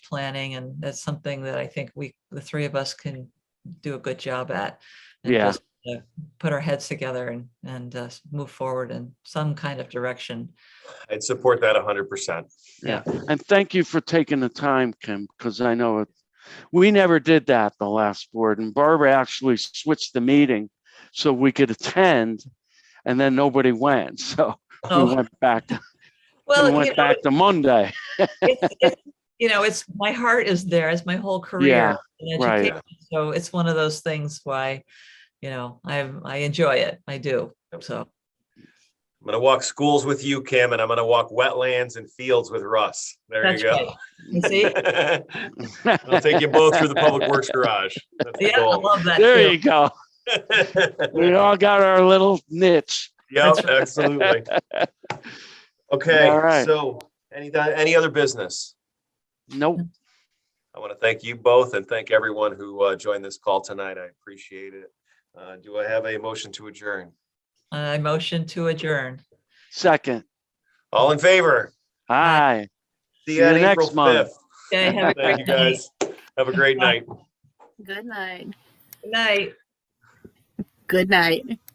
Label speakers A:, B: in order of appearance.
A: planning and that's something that I think we, the three of us can do a good job at. and
B: Yeah.
A: just, uh, Put our heads together and, and uh, move forward in some kind of direction.
C: I'd support that hundred percent.
B: And thank you for taking the time, Kim, because I know it, we never did that the last board and Barbara actually switched the meeting so we could attend and then nobody went. So we
A: Oh,
B: went back,
A: Well,
B: we
A: you
B: went
A: know,
B: back to Monday.
A: it's- it's- you know, it's, my heart is there as my whole
B: Yeah,
A: career. in
B: right.
A: education. So it's one of those things why, you know, I'm, I enjoy it. I do.
C: Yep.
A: So,
C: I'm gonna walk schools with you, Kim, and I'm gonna walk wetlands and fields with Russ. There you
A: That's
C: go.
A: you see,
C: I'll take you both through the public works garage. That's the
A: yeah, I
C: goal.
A: love that.
B: There
A: too.
B: you go. We all got our little niche.
C: Yep, absolutely.
B: All
C: Okay,
B: right.
C: so any, any other business?
B: Nope.
C: I want to thank you both and thank everyone who uh, joined this call tonight. I appreciate it. Uh, Do I have a motion to adjourn?
A: Uh, I motion to adjourn.
B: Second.
C: All in favor?
B: Hi.
C: See
B: See
C: you
B: you
C: on
B: next
C: April
B: month.
C: 5th.
A: Okay, have a
C: Thank you,
A: great night.
C: guys. Have a great night.
D: Good night.
A: Good night.
D: Good night.